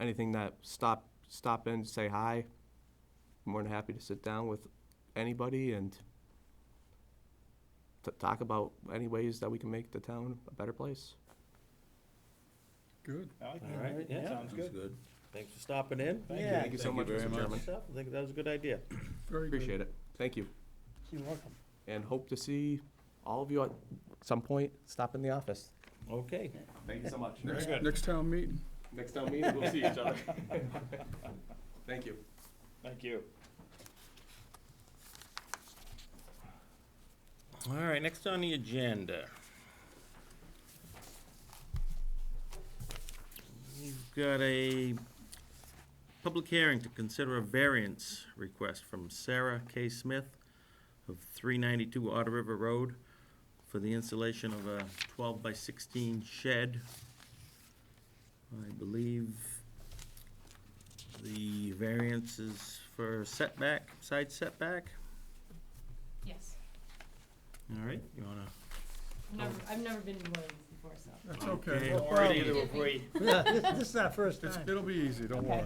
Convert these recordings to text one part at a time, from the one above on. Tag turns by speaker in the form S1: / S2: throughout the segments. S1: anything that stop, stop in, say hi. More than happy to sit down with anybody and to talk about any ways that we can make the town a better place.
S2: Good.
S3: I like
S4: All right,
S3: that.
S4: yeah.
S3: Sounds good.
S4: Thanks for stopping in.
S3: Thank you.
S1: Thank you so
S4: Thank
S1: much,
S4: you very
S1: Mr.
S4: much.
S1: Chairman.
S4: Yourself. I think that was a good idea.
S2: Very good.
S1: Appreciate it. Thank you.
S3: You're welcome.
S1: And hope to see all of you at some point, stop in the office.
S4: Okay.
S1: Thank you so much.
S2: Next, next town meeting.
S1: Next time we meet, we'll see each other. Thank you.
S3: Thank you.
S4: All right, next on the agenda. You've got a public hearing to consider a variance request from Sarah K. Smith of 392 Otter River Road for the installation of a 12 by 16 shed. I believe the variance is for setback, side setback.
S5: Yes.
S4: All right, you wanna
S5: Never, I've never been to one of these before, so.
S2: That's okay.
S4: We're ready to agree.
S6: This is our first
S2: It's,
S6: time.
S2: it'll be easy, don't worry.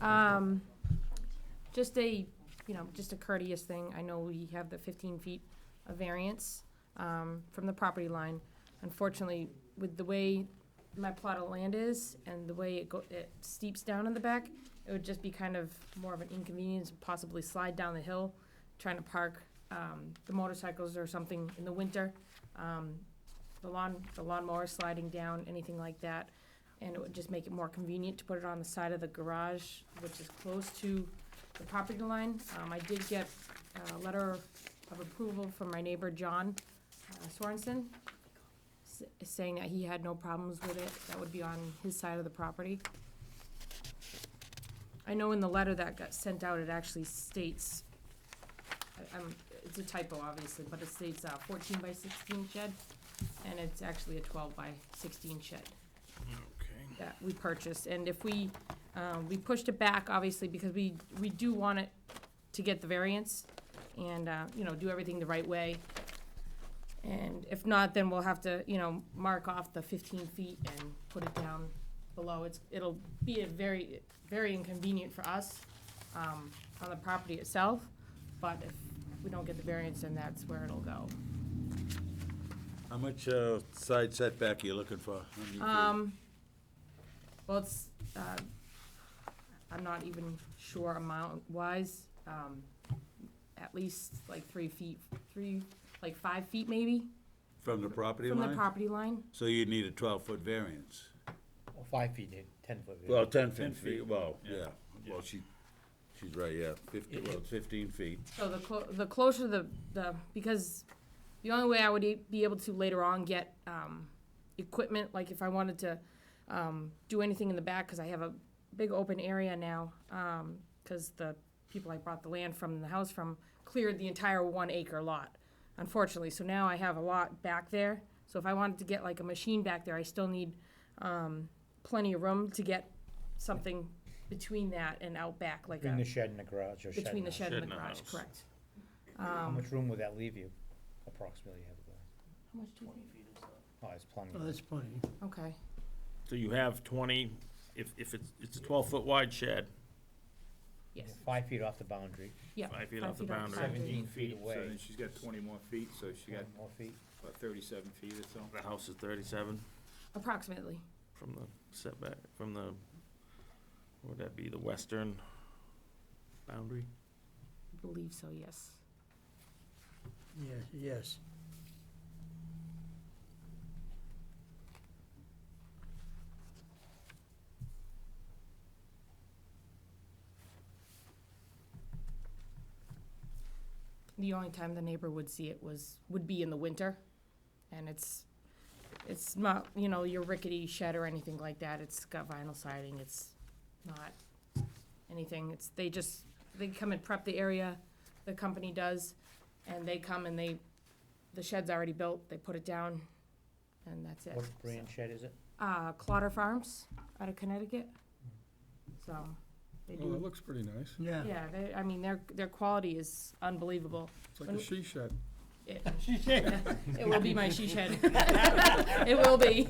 S5: Um, just a, you know, just a courteous thing, I know we have the fifteen feet of variance, um, from the property line. Unfortunately, with the way my plot of land is and the way it go, it steeps down in the back, it would just be kind of more of an inconvenience, possibly slide down the hill, trying to park, um, the motorcycles or something in the winter. Um, the lawn, the lawnmower sliding down, anything like that. and it would just make it more convenient to put it on the side of the garage, which is close to the property line. Um, I did get a letter of approval from my neighbor, John uh, Sorensen, s- saying that he had no problems with it, that would be on his side of the property. I know in the letter that got sent out, it actually states, I- I'm, it's a typo, obviously, but it states uh, fourteen by sixteen shed, and it's actually a twelve by sixteen shed
S4: Okay.
S5: that we purchased, and if we, um, we pushed it back, obviously, because we, we do want it to get the variance, and, uh, you know, do everything the right way. And if not, then we'll have to, you know, mark off the fifteen feet and put it down below, it's, it'll be a very, very inconvenient for us, um, on the property itself, but if we don't get the variance, then that's where it'll go.
S7: How much uh, side setback are you looking for? How many feet?
S5: Um, well, it's, uh, I'm not even sure amount wise, um, at least like three feet, three, like five feet maybe,
S7: From the property
S5: from the
S7: line?
S5: property line.
S7: So you'd need a 12-foot variance?
S6: Five feet, ten foot.
S7: Well, 10 feet, well, yeah. Well, she, she's right, yeah, 15, well, 15 feet.
S5: So the clo- the closer the, the, because the only way I would e- be able to later on get, um, equipment, like if I wanted to, um, do anything in the back, cause I have a big open area now, um, cause the people I bought the land from, the house from, cleared the entire one acre lot, unfortunately, so now I have a lot back there, so if I wanted to get like a machine back there, I still need, um, plenty of room to get something between that and out back, like
S6: Between the
S5: a,
S6: shed and the garage, or shed
S5: between
S6: and
S5: the
S6: the house.
S5: shed and the
S4: Shed and a
S5: garage,
S4: house.
S5: correct.
S6: How much room would that leave you approximately? have there?
S5: How much do you
S6: Oh, it's plenty.
S2: That's plenty.
S5: Okay,
S4: So you have twenty, if, if it's, it's a twelve-foot wide shed,
S5: yes,
S6: Five feet off the boundary,
S5: yeah.
S4: five feet
S5: Five
S4: off the
S5: feet off the
S4: boundary,
S6: seventeen feet
S3: So then
S6: away,
S3: she's got twenty more feet, so she got
S6: One more feet.
S3: about thirty-seven feet or so.
S4: the house is thirty-seven
S5: approximately.
S4: from the setback, from the, what would that be, the western boundary?
S5: I believe so, yes.
S6: Yeah, yes.
S5: The only time the neighbor would see it was, would be in the winter. And it's, it's not, you know, your rickety shed or anything like that. It's got vinyl siding. It's not anything. It's, they just, they come and prep the area, the company does. And they come and they, the shed's already built. They put it down and that's it.
S6: What brand shed is it?
S5: Uh, Clotter Farms out of Connecticut. So they do
S2: Well, it looks pretty nice.
S6: Yeah.
S5: Yeah, they, I mean, their, their quality is unbelievable.
S2: It's like a she shed.
S5: It it will be my she shed. It will be.